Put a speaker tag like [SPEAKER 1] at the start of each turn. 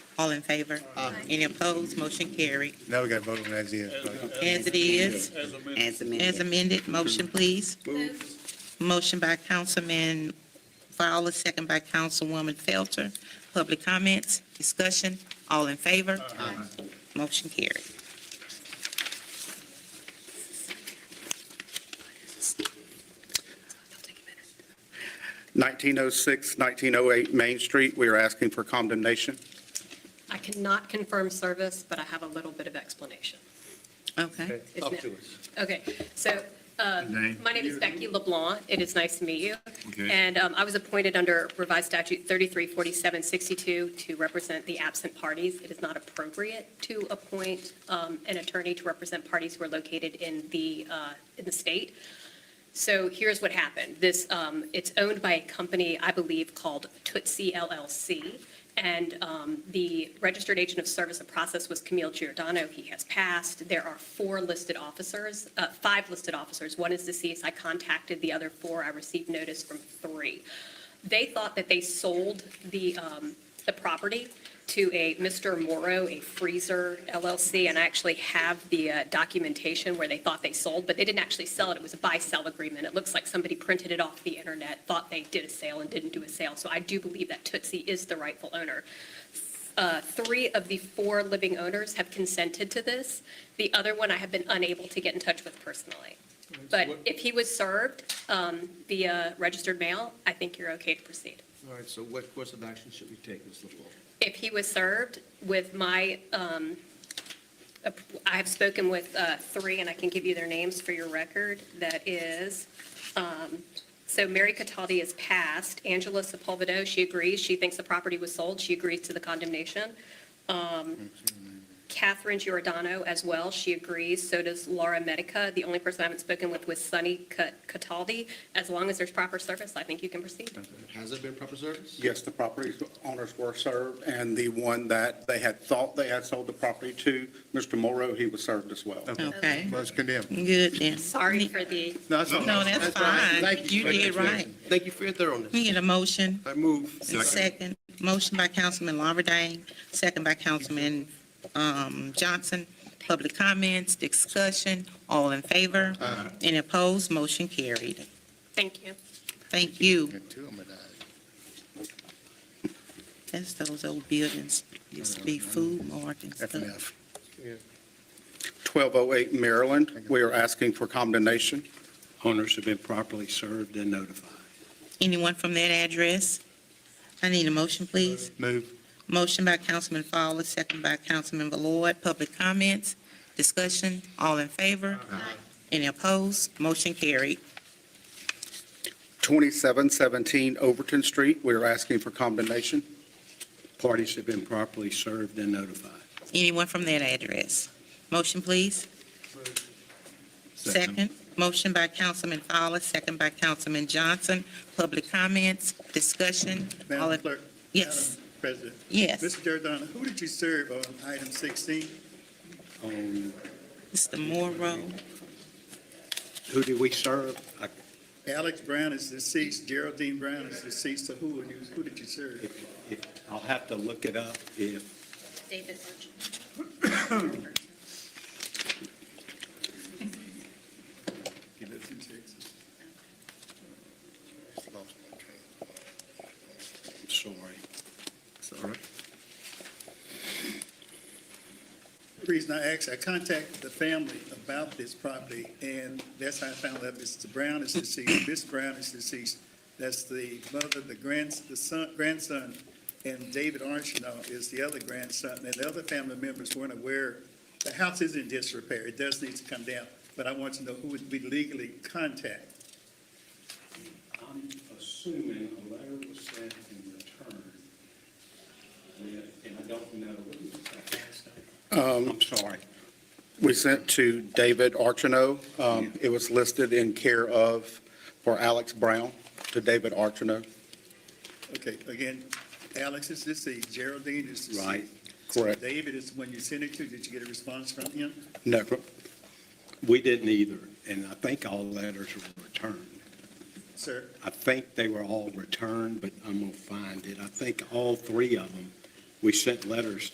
[SPEAKER 1] All in favor? Any opposed? Motion carried.
[SPEAKER 2] Now we got to vote on that as is. buddy.
[SPEAKER 1] As it is,
[SPEAKER 3] As
[SPEAKER 1] as
[SPEAKER 3] amended.
[SPEAKER 1] amended, motion, please. Motion by Councilman Fowler, second by Councilwoman Felter. Public comments, discussion, all in favor? Motion carried.
[SPEAKER 4] Nineteen oh six, nineteen oh eight Main Street, we are asking for condemnation.
[SPEAKER 5] I cannot confirm service, but I have a little bit of explanation.
[SPEAKER 1] Okay.
[SPEAKER 5] It's no- Okay, so uh, my name is Becky LeBlanc. It is nice to meet you. And um, I was appointed under revised statute 334762 to represent the absent parties. It is not appropriate to appoint um, an attorney to represent parties who are located in the, uh, in the state. So here's what happened. This, um, it's owned by a company, I believe, called Tootsie LLC. And, um, the registered agent of service and process was Camille Giordano. He has passed. There are four listed officers, uh, five listed officers. One is deceased. I contacted the other four. I received notice from three. They thought that they sold the, um, the property to a Mr. Morrow, a freezer LLC, and I actually have the uh, documentation where they thought they sold, but they didn't actually sell it. It was a buy-sell agreement. It looks like somebody printed it off the internet, thought they did a sale and didn't do a sale. So I do believe that Tootsie is the rightful owner. Uh, Three of the four living owners have consented to this. The other one I have been unable to get in touch with personally. But if he was served um, via registered mail, I think you're okay to proceed.
[SPEAKER 6] All right, so what course of action should we take, Ms. LaFleur?
[SPEAKER 5] If he was served with my, um, ap- I have spoken with uh, three, and I can give you their names for your record. That is, um, so Mary Cataldi is passed. Angela Sepulvedo, she agrees. She thinks the property was sold. She agrees to the condemnation. Um, Catherine Giordano as well, she agrees. So does Laura Medica. The only person I haven't spoken with was Sunny Ca- Cataldi. As long as there's proper service, I think you can proceed.
[SPEAKER 6] Has it been proper service?
[SPEAKER 4] Yes, the property owners were served, and the one that they had thought they had sold the property to, Mr. Morrow, he was served as well.
[SPEAKER 1] Okay,
[SPEAKER 2] Well, it's condemned.
[SPEAKER 1] good then.
[SPEAKER 5] Sorry for the
[SPEAKER 6] No, that's all right.
[SPEAKER 1] No, that's
[SPEAKER 6] all right.
[SPEAKER 1] fine.
[SPEAKER 6] Thank
[SPEAKER 1] You did right.
[SPEAKER 6] Thank you for your thoroughness.
[SPEAKER 1] We get a motion.
[SPEAKER 6] I move.
[SPEAKER 1] Second, motion by Councilman Lawberdane, second by Councilman um, Johnson. Public comments, discussion, all in favor? Any opposed? Motion carried.
[SPEAKER 5] Thank you.
[SPEAKER 1] Thank you.
[SPEAKER 2] Got two of 'em or not?
[SPEAKER 1] That's those old buildings, used to be food mart and
[SPEAKER 2] F
[SPEAKER 1] stuff.
[SPEAKER 2] and F.
[SPEAKER 4] Twelve oh eight Maryland, we are asking for condemnation.
[SPEAKER 7] Owners have been properly served and notified.
[SPEAKER 1] Anyone from that address? I need a motion, please.
[SPEAKER 2] Move.
[SPEAKER 1] Motion by Councilman Fowler, second by Councilman Ballard. Public comments, discussion, all in favor? Any opposed? Motion carried.
[SPEAKER 4] Twenty-seven seventeen Overton Street, we are asking for condemnation.
[SPEAKER 7] Parties have been properly served and notified.
[SPEAKER 1] Anyone from that address? Motion, please. Second. Motion by Councilman Fowler, second by Councilman Johnson. Public comments, discussion. all
[SPEAKER 8] Madam
[SPEAKER 1] in-
[SPEAKER 8] Clerk,
[SPEAKER 1] Yes,
[SPEAKER 8] President.
[SPEAKER 1] yes.
[SPEAKER 8] Mr. Giordano, who did you serve on item 16?
[SPEAKER 7] On
[SPEAKER 1] Mr. Morrow,
[SPEAKER 7] who do we serve? I-
[SPEAKER 8] Alex Brown is deceased, Geraldine Brown is deceased, so who would you, who did you serve?
[SPEAKER 7] if- if- I'll have to look it up if,
[SPEAKER 5] David Archuleta.
[SPEAKER 8] He lives in Texas.
[SPEAKER 7] I'm sorry. Sorry.
[SPEAKER 8] The reason I asked, I contacted the family about this property, and that's how I found out Mr. Brown is deceased, Miss Brown is deceased. That's the mother, the grands, the son, grandson, and David Archino is the other grandson, and the other family members weren't aware. The house is in disrepair, it does need to come down, but I want to know who would we legally contact.
[SPEAKER 7] I'm assuming a letter was sent in return, with- and I don't know.
[SPEAKER 4] Um,
[SPEAKER 7] I'm sorry.
[SPEAKER 4] We sent to David Archino. Um, It was listed in care of for Alex Brown to David Archino.
[SPEAKER 8] Okay, again, Alex is deceased, Geraldine is deceased.
[SPEAKER 7] Right.
[SPEAKER 4] Correct.
[SPEAKER 8] David is the one you sent it to, did you get a response from him?
[SPEAKER 4] No,
[SPEAKER 7] We didn't either, and I think all letters were returned.
[SPEAKER 8] Sir,
[SPEAKER 7] I think they were all returned, but I'm going to find it. I think all three of them, we sent letters